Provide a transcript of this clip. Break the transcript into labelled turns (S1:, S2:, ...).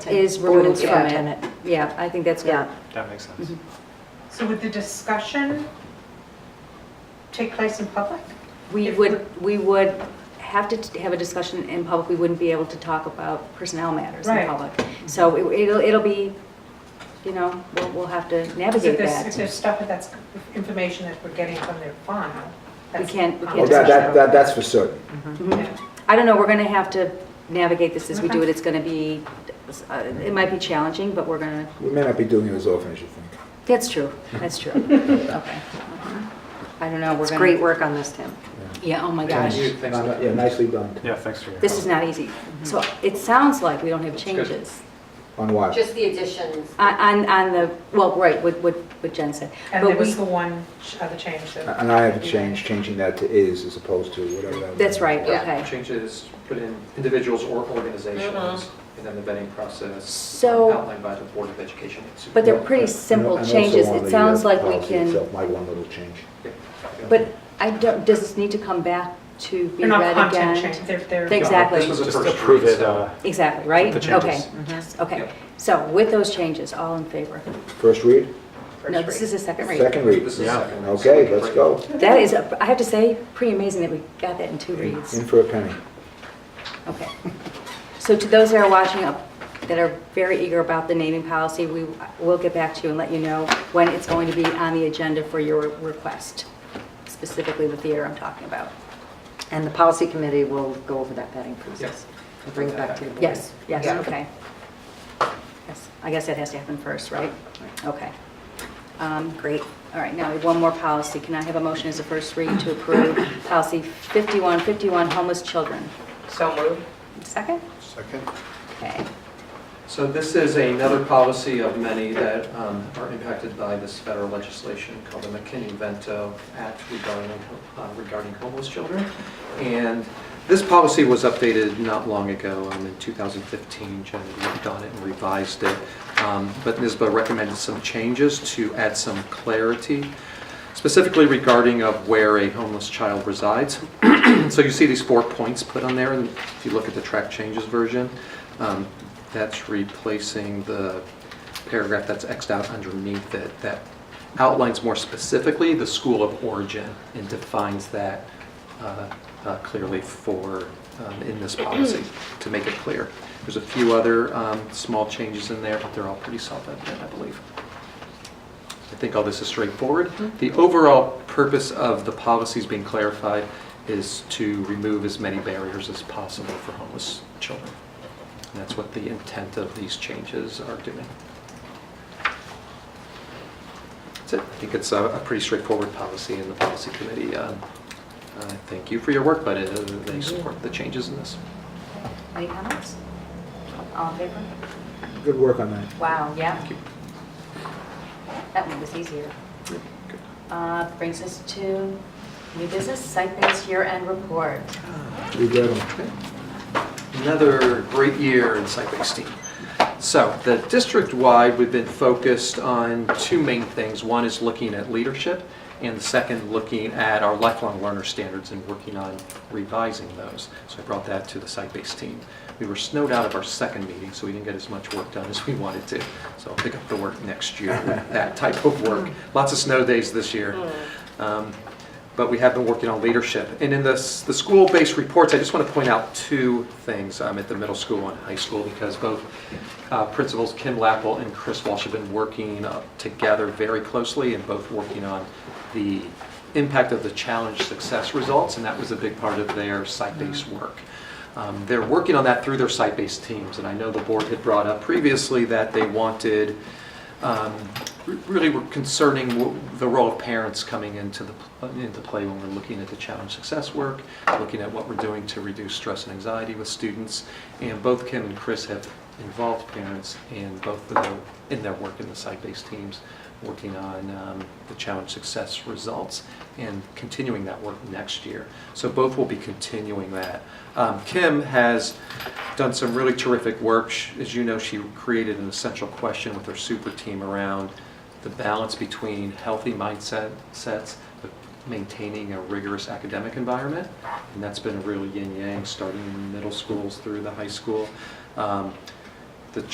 S1: is removed
S2: Ordinance
S1: from it.
S2: tenant.
S1: Yeah, I think that's good. Mm-hmm.
S2: Yeah.
S3: That makes sense.
S4: So would the discussion take place in public?
S1: We
S4: If
S1: would, we would have to t- have a discussion in public, we wouldn't be able to talk about personnel matters in
S4: Right. Mm-hmm.
S1: public. So it- it'll, it'll be, you know, we'll, we'll have to
S4: Because if
S1: navigate
S4: there's, if
S1: that.
S4: there's stuff that's, information that we're getting from their file. that's-
S1: can't- we can't
S4: Yeah.
S5: Well, Oh, that, that, that- that's for certain.
S1: Mhm. I don't know, we're gonna have to navigate this as we do it,
S4: Okay.
S1: it's gonna be, uh, it might be challenging, but we're gonna,
S5: We may not be doing it as often as you think.
S1: that's true, that's true. Uh-huh.
S2: Okay. I don't know, we're
S1: It's
S2: gonna.
S1: great work on this, Tim. Yeah, oh my
S3: Thank
S1: gosh.
S3: you. Thanks.
S5: No, no, Uh, Yeah, nicely done.
S6: Mm-hmm.
S3: Yeah, thanks for your.
S1: This is not easy. So it sounds like we don't have
S3: good.
S1: changes
S5: On what?
S7: Just the additions.
S1: on, on- on Uh, the, well, right, what, what what Jen said.
S4: And there
S1: But
S4: was
S1: we,
S4: the one ch- other change that.
S5: And I have changed, changing that to is as opposed to whatever that was.
S1: that's right,
S7: Yeah.
S1: okay.
S6: changes, put in individuals or organizations, and then the vetting process
S1: Mm-hmm. So-
S6: outlined by the Board of Education.
S1: But they're
S5: And-
S1: pretty
S5: and-
S1: simple
S5: and also
S1: changes.
S5: on
S1: It
S5: the,
S1: sounds
S5: uh,
S1: like we
S5: policy
S1: can,
S5: itself, My one little change.
S1: but I don't, does this need to come back to be
S4: They're not
S1: read
S4: content
S1: again?
S4: change, they're, they're.
S1: Thank- Exactly.
S3: This was a
S6: Just
S3: first
S6: approve
S3: read,
S6: it,
S3: so-
S6: uh,
S1: Exactly, right?
S3: The changes.
S1: Okay,
S4: Mm-hmm.
S1: yes, okay.
S6: Yeah.
S1: So with those changes, all in favor?
S5: First read,
S1: No, this is a second read.
S5: second read.
S6: This is
S3: Yeah.
S6: second.
S5: Okay, let's go.
S1: That is, a- I have to say, pretty amazing that we got that in two reads.
S5: In for a penny.
S1: Okay. So to those that are watching, up, that are very eager about the naming policy, we will get back to you and let you know when it's going to be on the agenda for your request, specifically the theater I'm talking about.
S2: And the policy committee will go over that vetting process.
S6: Yes.
S2: And bring it back to the board.
S1: Yes, yes,
S2: Yeah.
S1: okay. Yes, I guess that has to happen first, right? Okay. Um, Great. All right, now we have one more policy. Can I have a motion as a first read to approve policy 5151, homeless children?
S7: So moved.
S1: Second?
S3: Second.
S1: Okay.
S6: So this is another policy of many that um, are impacted by this federal legislation called the McKinney-Vento Act regarding uh, regarding homeless children. And this policy was updated not long ago, um, in 2015, Jen worked on it and revised it. Um, But NISBA recommended some changes to add some clarity, specifically regarding of where a homeless child resides. So you see these four points put on there, and if you look at the track changes version, um, that's replacing the paragraph that's Xed out underneath it that outlines more specifically the school of origin and defines that uh, uh, clearly for, um, in this policy, to make it clear. There's a few other um, small changes in there, but they're all pretty self-evident, I believe. I think all this is straightforward. The overall purpose of the policies being clarified is to remove as many barriers as possible for homeless children. And that's what the intent of these changes are doing. That's it. I think it's a a pretty straightforward policy and the policy committee. uh, uh, Thank you for your work, but uh, they support the changes in this.
S1: Any comments? All in favor?
S5: Good work on that.
S1: Wow, yeah,
S6: Thank you.
S1: that one was easier.
S6: Good.
S1: Uh, Brings us to new business, site-based year-end report.
S5: We got 'em.
S6: Another great year in site-based team. So the district-wide, we've been focused on two main things. One is looking at leadership, and the second, looking at our lifelong learner standards and working on revising those. So I brought that to the site-based team. We were snowed out of our second meeting, so we didn't get as much work done as we wanted to. So I'll pick up the work next year with that type of work. Lots of snow days this year. Um, but we have been working on leadership. And in the, s- the school-based reports, I just want to point out two things um, at the middle school and high school because both uh, principals Kim Lappel and Chris Walsh have been working uh, together very closely and both working on the impact of the challenge success results, and that was a big part of their site-based work. Um, They're working on that through their site-based teams, and I know the board had brought up previously that they wanted um, re- really were concerning w- the role of parents coming into the, into play when we're looking at the challenge success work, looking at what we're doing to reduce stress and anxiety with students. And both Kim and Chris have involved parents in both of their, in their work in the site-based teams, working on um, the challenge success results and continuing that work next year. So both will be continuing that. Um, Kim has done some really terrific work. Sh- As you know, she created an essential question with her super team around the balance between healthy mindset sets, but maintaining a rigorous academic environment. And that's been a real yin-yang, starting in middle schools through the high school. Um,